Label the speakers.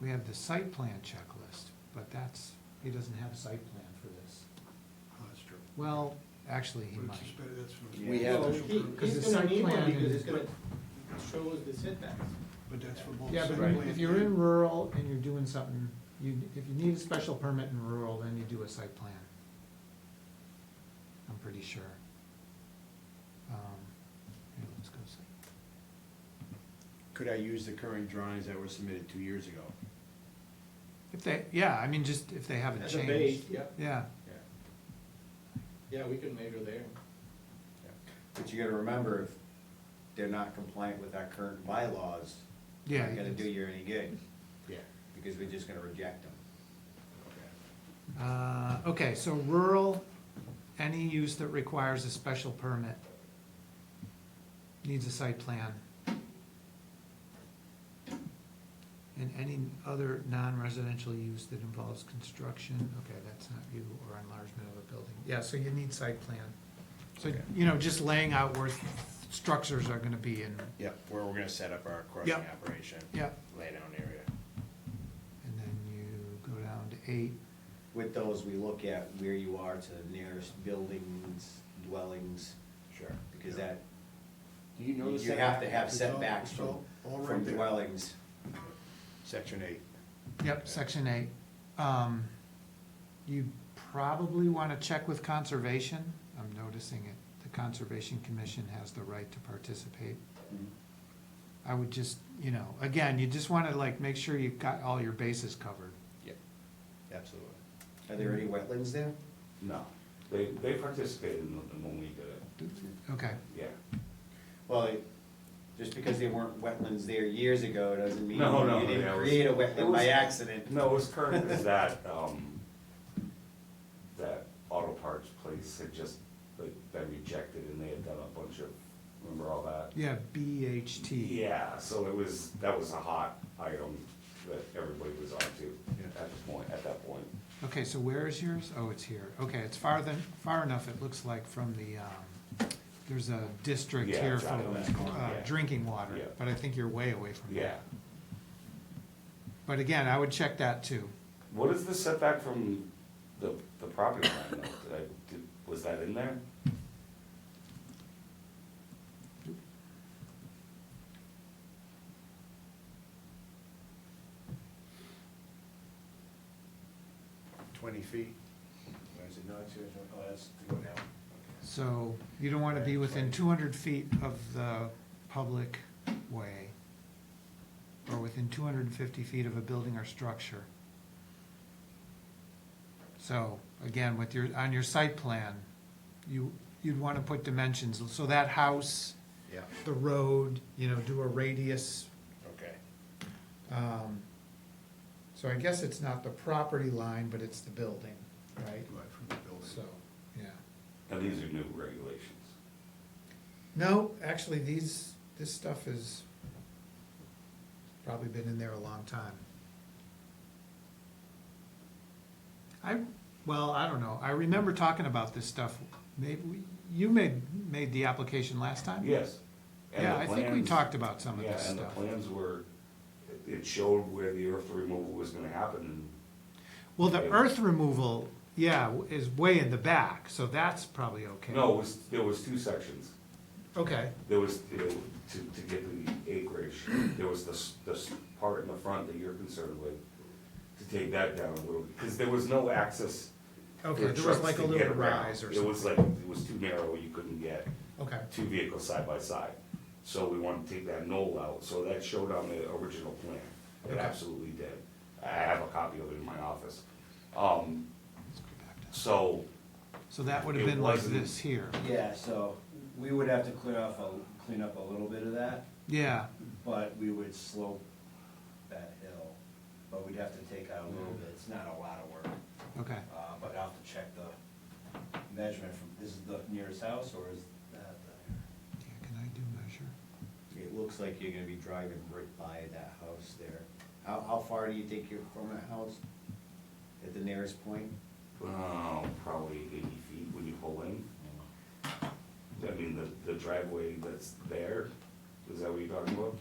Speaker 1: we have the site plan checklist, but that's, he doesn't have a site plan for this.
Speaker 2: Oh, That's true.
Speaker 1: Well, actually, he
Speaker 2: But
Speaker 1: might.
Speaker 2: it's suspended, that's what.
Speaker 3: We have-
Speaker 4: Well,
Speaker 2: Special
Speaker 4: he-
Speaker 2: permit.
Speaker 1: Because the
Speaker 4: He's gonna
Speaker 1: site
Speaker 4: need one
Speaker 1: plan
Speaker 4: because
Speaker 1: is-
Speaker 4: it's gonna show us the setbacks.
Speaker 2: But that's for both.
Speaker 1: Yeah,
Speaker 2: site
Speaker 1: but
Speaker 2: plan
Speaker 1: if you're in
Speaker 2: and-
Speaker 1: rural and you're doing something, you, if you need a special permit in rural, then you do a site plan. I'm pretty sure. Um, Here, let's go see.
Speaker 3: Could I use the current drawings that were submitted two years ago?
Speaker 1: If they, yeah, I mean, just if they haven't
Speaker 4: As a base,
Speaker 1: changed.
Speaker 4: yeah,
Speaker 1: Yeah,
Speaker 3: Yeah.
Speaker 4: yeah, we can measure there.
Speaker 5: But you gotta remember, if they're not compliant with our current bylaws, it's
Speaker 1: yeah.
Speaker 5: not gonna do you any good,
Speaker 3: Yeah.
Speaker 5: because we're just gonna reject them.
Speaker 1: Uh, okay, so rural, any use that requires a special permit needs a site plan. And any other non-residential use that involves construction, okay, that's not you, or enlargement of a building, yeah, so you need site plan. So,
Speaker 3: Okay.
Speaker 1: you know, just laying out where structures are gonna be in,
Speaker 3: Yeah, where we're gonna set up our crushing
Speaker 1: Yeah.
Speaker 3: operation,
Speaker 1: yeah,
Speaker 3: laydown area.
Speaker 1: and then you go down to eight,
Speaker 5: With those, we look at where you are to the nearest buildings, dwellings,
Speaker 3: Sure.
Speaker 5: because that,
Speaker 3: Do you know the
Speaker 5: you
Speaker 3: set-
Speaker 5: have to have
Speaker 2: It's all-
Speaker 5: setbacks
Speaker 2: it's
Speaker 5: from,
Speaker 2: all- all right
Speaker 5: from
Speaker 2: there.
Speaker 5: dwellings.
Speaker 3: Section eight.
Speaker 1: Yep, section eight. Um, you probably wanna check with conservation. I'm noticing it. The Conservation Commission has the right to participate. I would just, you know, again, you just wanna like make sure you've got all your bases covered.
Speaker 3: Yep, absolutely.
Speaker 5: Are there any
Speaker 2: Mm-hmm.
Speaker 5: wetlands there?
Speaker 6: No, they, they participated in the, when we did it,
Speaker 1: Okay,
Speaker 6: yeah.
Speaker 5: Well, it- just because there weren't wetlands there years ago, doesn't mean
Speaker 6: No, no,
Speaker 5: you
Speaker 6: yeah, it
Speaker 5: didn't
Speaker 6: was-
Speaker 5: create a
Speaker 6: it
Speaker 5: wetland
Speaker 6: was-
Speaker 5: by accident.
Speaker 6: No, it was current as that, um, that auto parts place had just, like, that rejected and they had done a bunch of, remember all that?
Speaker 1: yeah, BHT.
Speaker 6: Yeah, so it was, that was a hot item that everybody was onto
Speaker 3: Yeah.
Speaker 6: at the point, at that point.
Speaker 1: Okay, so where is yours? Oh, it's here. Okay, it's far than, far enough, it looks like, from the, um, there's a district
Speaker 6: Yeah,
Speaker 1: here
Speaker 6: it's
Speaker 1: for,
Speaker 6: out of that corner,
Speaker 1: uh,
Speaker 6: yeah.
Speaker 1: drinking water,
Speaker 6: Yeah.
Speaker 1: but I think you're way away from that.
Speaker 6: Yeah.
Speaker 1: But again, I would check that too.
Speaker 6: What is the setback from the, the property line though? Did I, did, was that in there?
Speaker 3: Twenty feet. Or is it not two, oh, that's to go down.
Speaker 1: So you don't want to be within two hundred feet of the public way or within two hundred and fifty feet of a building or structure. So again, with your, on your site plan, you, you'd want to put dimensions. So that house,
Speaker 3: Yeah,
Speaker 1: the road, you know, do a radius.
Speaker 3: okay.
Speaker 1: um, So I guess it's not the property line, but it's the building, right?
Speaker 2: Right, from the building.
Speaker 1: So, yeah.
Speaker 6: And these are new regulations.
Speaker 1: No, actually, these, this stuff is probably been in there a long time. I, well, I don't know, I remember talking about this stuff, maybe, we- you made, made the application last time?
Speaker 6: Yes. And
Speaker 1: Yeah,
Speaker 6: the
Speaker 1: I think we
Speaker 6: plans-
Speaker 1: talked about some of
Speaker 6: yeah,
Speaker 1: this stuff.
Speaker 6: And the plans were, it- it showed where the earth removal was gonna happen,
Speaker 1: Well, the earth removal, yeah, is way in the back, so that's probably okay.
Speaker 6: and, no, it was, there was two sections.
Speaker 1: Okay,
Speaker 6: There was, you know, to, to get the acreage, there was this, this part in the front that you're concerned with, to take that down a little, because there was no access for
Speaker 1: okay, there was
Speaker 6: trucks
Speaker 1: like a
Speaker 6: to
Speaker 1: little
Speaker 6: get around.
Speaker 1: rise or something.
Speaker 6: It was like, it was too narrow, you couldn't get
Speaker 1: Okay,
Speaker 6: two vehicles side by side, so we wanted to take that knoll out, so that showed on the original plan. It
Speaker 1: Okay.
Speaker 6: absolutely did. I have a copy of it in my office. Um,
Speaker 1: Let's go back down.
Speaker 6: so,
Speaker 1: so that would have
Speaker 6: It
Speaker 1: been like
Speaker 6: wasn't-
Speaker 1: this here,
Speaker 5: Yeah, so we would have to clean off, a- clean up a little bit of that,
Speaker 1: yeah.
Speaker 5: but we would slope that hill. But we'd have to take out a little bit, it's not a lot of work,
Speaker 1: Okay,
Speaker 5: uh, but I'll have to check the measurement from, this is the nearest house or is that the?
Speaker 1: yeah, can I do measure?
Speaker 5: It looks like you're gonna be driving right by that house there. How, how far do you think you're from that house? At the nearest point?
Speaker 6: um, probably eighty feet when you pull in. I mean, the, the driveway that's there, is that what you're talking about?